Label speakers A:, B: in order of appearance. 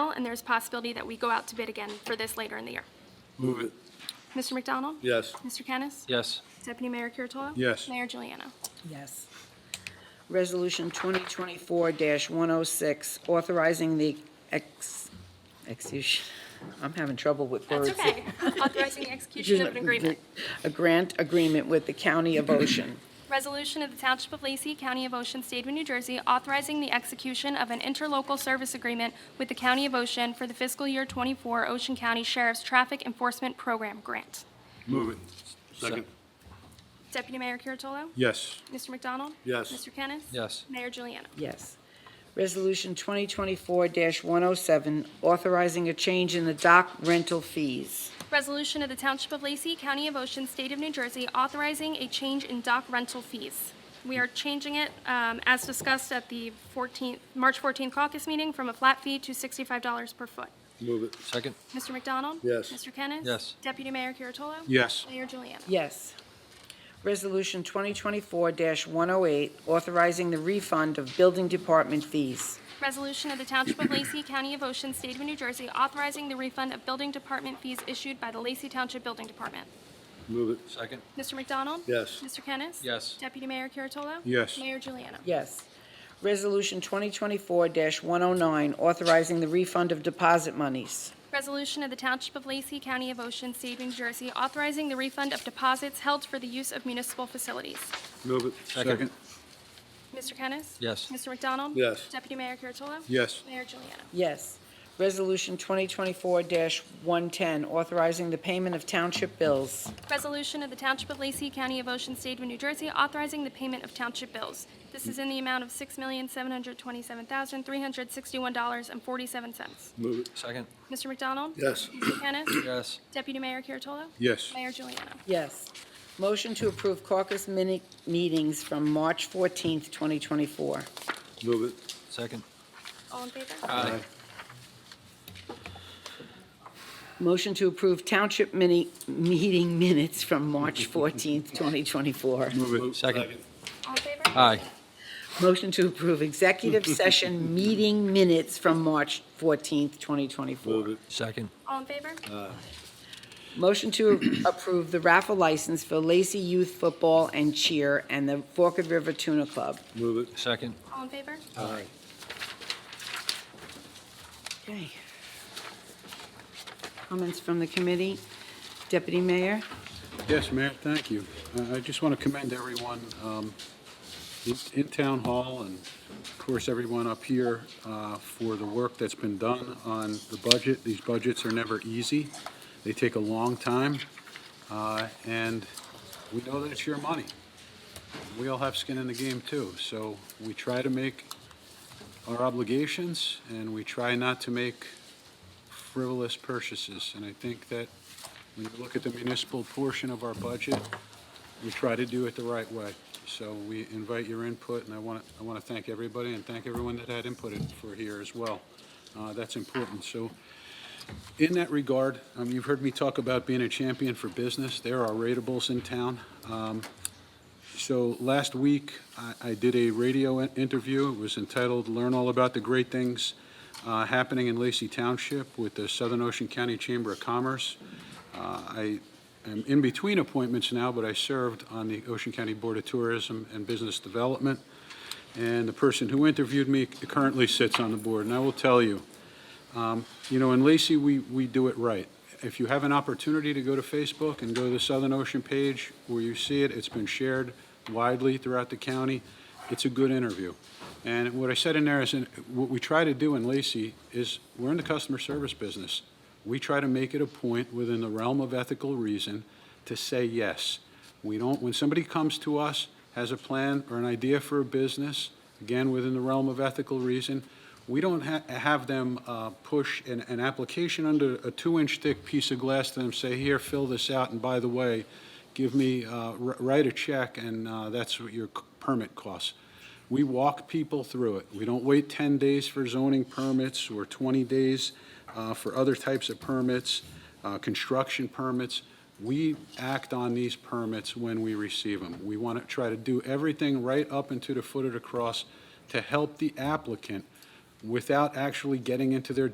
A: and there's possibility that we go out to bid again for this later in the year.
B: Move it.
A: Mr. McDonald?
B: Yes.
A: Mr. Kennis?
C: Yes.
A: Deputy Mayor Kuratolo?
B: Yes.
A: Mayor Juliana?
D: Yes. Resolution 2024-106, authorizing the ex, excuse, I'm having trouble with
A: That's
D: words.
A: okay. Authorizing the execution of an agreement.
D: A grant agreement with the County of Ocean.
A: Resolution of the Township of Lacey, County of Ocean, State of New Jersey, authorizing the execution of an interlocal service agreement with the County of Ocean for the fiscal year 24 Ocean County Sheriff's Traffic Enforcement Program Grant.
B: Move it. Second.
A: Deputy Mayor Kuratolo?
B: Yes.
A: Mr. McDonald?
B: Yes.
A: Mr. Kennis?
C: Yes.
A: Mayor Juliana?
D: Yes. Resolution 2024-107, authorizing a change in the dock rental fees.
A: Resolution of the Township of Lacey, County of Ocean, State of New Jersey, authorizing a change in dock rental fees. We are changing it, um, as discussed at the 14th, March 14th caucus meeting, from a flat fee to $65 per foot.
B: Move it.
C: Second.
A: Mr. McDonald?
B: Yes.
A: Mr. Kennis?
C: Yes.
A: Deputy Mayor Kuratolo?
B: Yes.
A: Mayor Juliana?
D: Yes. Resolution 2024-108, authorizing the refund of building department fees.
A: Resolution of the Township of Lacey, County of Ocean, State of New Jersey, authorizing the refund of building department fees issued by the Lacey Township Building Department.
B: Move it.
C: Second.
A: Mr. McDonald?
B: Yes.
A: Mr. Kennis?
C: Yes.
A: Deputy Mayor Kuratolo?
B: Yes.
A: Mayor Juliana?
D: Yes. Resolution 2024-109, authorizing the refund of deposit monies.
A: Resolution of the Township of Lacey, County of Ocean, State of New Jersey, authorizing the refund of deposits held for the use of municipal facilities.
B: Move it.
C: Second.
A: Mr. Kennis?
C: Yes.
A: Mr. McDonald?
B: Yes.
A: Deputy Mayor Kuratolo?
B: Yes.
A: Mayor Juliana?
D: Yes. Resolution 2024-110, authorizing the payment of township bills.
A: Resolution of the Township of Lacey, County of Ocean, State of New Jersey, authorizing the payment of township bills. This is in the amount of $6,727,361.47.
B: Move it.
C: Second.
A: Mr. McDonald?
B: Yes.
A: Mr. Kennis?
C: Yes.
A: Deputy Mayor Kuratolo?
B: Yes.
A: Mayor Juliana?
D: Yes. Motion to approve caucus minute meetings from March 14th, 2024.
B: Move it.
C: Second.
A: All in favor?
C: Aye.
D: Motion to approve township mini, meeting minutes from March 14th, 2024.
B: Move it.
C: Second.
A: All in favor?
C: Aye.
D: Motion to approve executive session meeting minutes from March 14th, 2024.
B: Move it.
C: Second.
A: All in favor?
D: Motion to approve the raffle license for Lacey Youth Football and Cheer and the Forked River Tuna Club.
B: Move it.
C: Second.
A: All in favor?
B: Aye.
D: Okay. Comments from the committee? Deputy Mayor?
E: Yes, Mayor, thank you. I- I just want to commend everyone um, in- in Town Hall and, of course, everyone up here uh, for the work that's been done on the budget. These budgets are never easy. They take a long time, uh, and we know that it's your money. We all have skin in the game, too, so we try to make our obligations, and we try not to make frivolous purchases, and I think that when you look at the municipal portion of our budget, we try to do it the right way. So we invite your input, and I want, I want to thank everybody and thank everyone that had input in- for here as well. Uh, That's important. So in that regard, um, you've heard me talk about being a champion for business. There are ratables in town. Um, So last week, I- I did a radio in- interview. It was entitled "Learn All About the Great Things uh, Happening in Lacey Township" with the Southern Ocean County Chamber of Commerce. Uh, I am in between appointments now, but I served on the Ocean County Board of Tourism and Business Development, and the person who interviewed me currently sits on the board. And I will tell you, um, you know, in Lacey, we, we do it right. If you have an opportunity to go to Facebook and go to the Southern Ocean page where you see it, it's been shared widely throughout the county, it's a good interview. And what I said in there is, in- what we try to do in Lacey is, we're in the customer service business. We try to make it a point within the realm of ethical reason to say yes. We don't, when somebody comes to us, has a plan or an idea for a business, again, within the realm of ethical reason, we don't ha- have them uh, push an, an application under a two-inch thick piece of glass to them, say, here, fill this out, and by the way, give me, uh, wr- write a check, and uh, that's what your c- permit costs. We walk people through it. We don't wait 10 days for zoning permits or 20 days uh, for other types of permits, uh, construction permits. We act on these permits when we receive them. We want to try to do everything right up and to the foot of the cross to help the applicant without actually getting into their